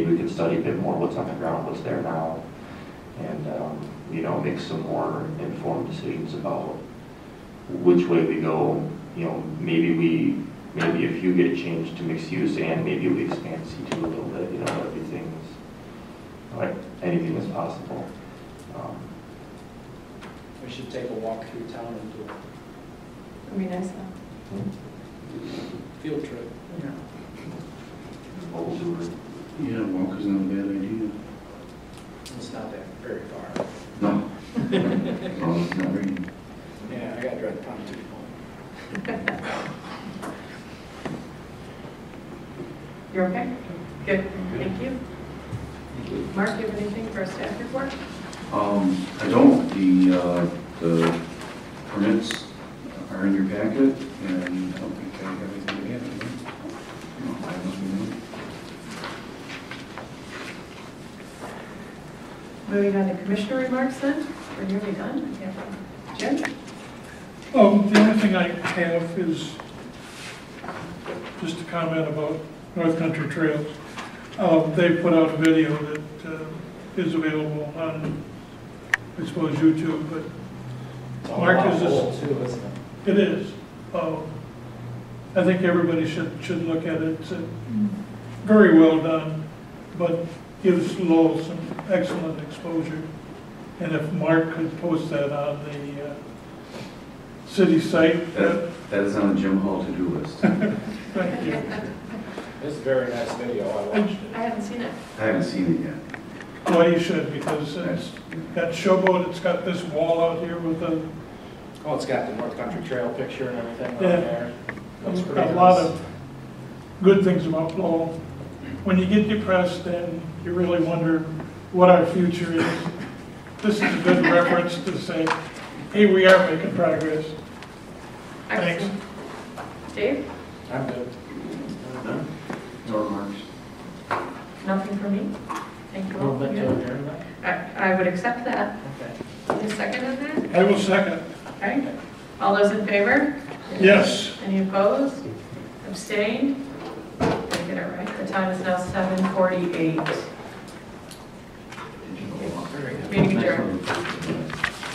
We can study a bit more what's on the ground, what's there now, and, um, you know, make some more informed decisions about which way we go. You know, maybe we, maybe if you get changed to mixed use and maybe we expand C2 a little bit, you know, everything's, like, anything is possible. Um, We should take a walk through town and do a Would be nice field trip. though. What we'll do is Yeah, walk is not a bad idea. It's not that very far. No. No, it's not raining. Yeah, I gotta drive the pontoon home. You're okay? Good, thank you. Mark, do you have anything for our staff report? Um, I don't, the, uh, the permits are in your packet, and I don't think I have anything to add. do I? No, I have nothing Moving on to commissioner remarks then, we're nearly done. I can't- Jim? Um, the only thing I have is just a comment about North Country Trails. Um, they put out a video that, uh, is available on, I suppose, YouTube, but It's all Mark, about is this- goal too, isn't it? it is. Um, I think everybody should, should look at it. It's uh, very well done, but gives Lowell some excellent exposure. And if Mark could post that on the, uh, city site, uh, to add. that, That, that is on the Jim Hall to-do list. thank you. It's a very nice video, I watched I it. haven't seen it. I haven't seen it yet. Well, you should, because it's That's, got showboat, it's got this wall out here with a, Oh, it's got the North Country Trail picture and everything on Yeah. there. Looks pretty a lot nice. of good things about Lowell. When you get depressed and you really wonder what our future is, this is a good reference to say, hey, we are making progress. Thanks. Dave, I'm good. no, no remarks. nothing for me? Thank you all. Movement to adjournment? I, I would accept that. Okay. Any second on that? I will second. Okay. All those in favor? Yes. Any opposed? Abstained? Did I get it right? The time is now 7:48.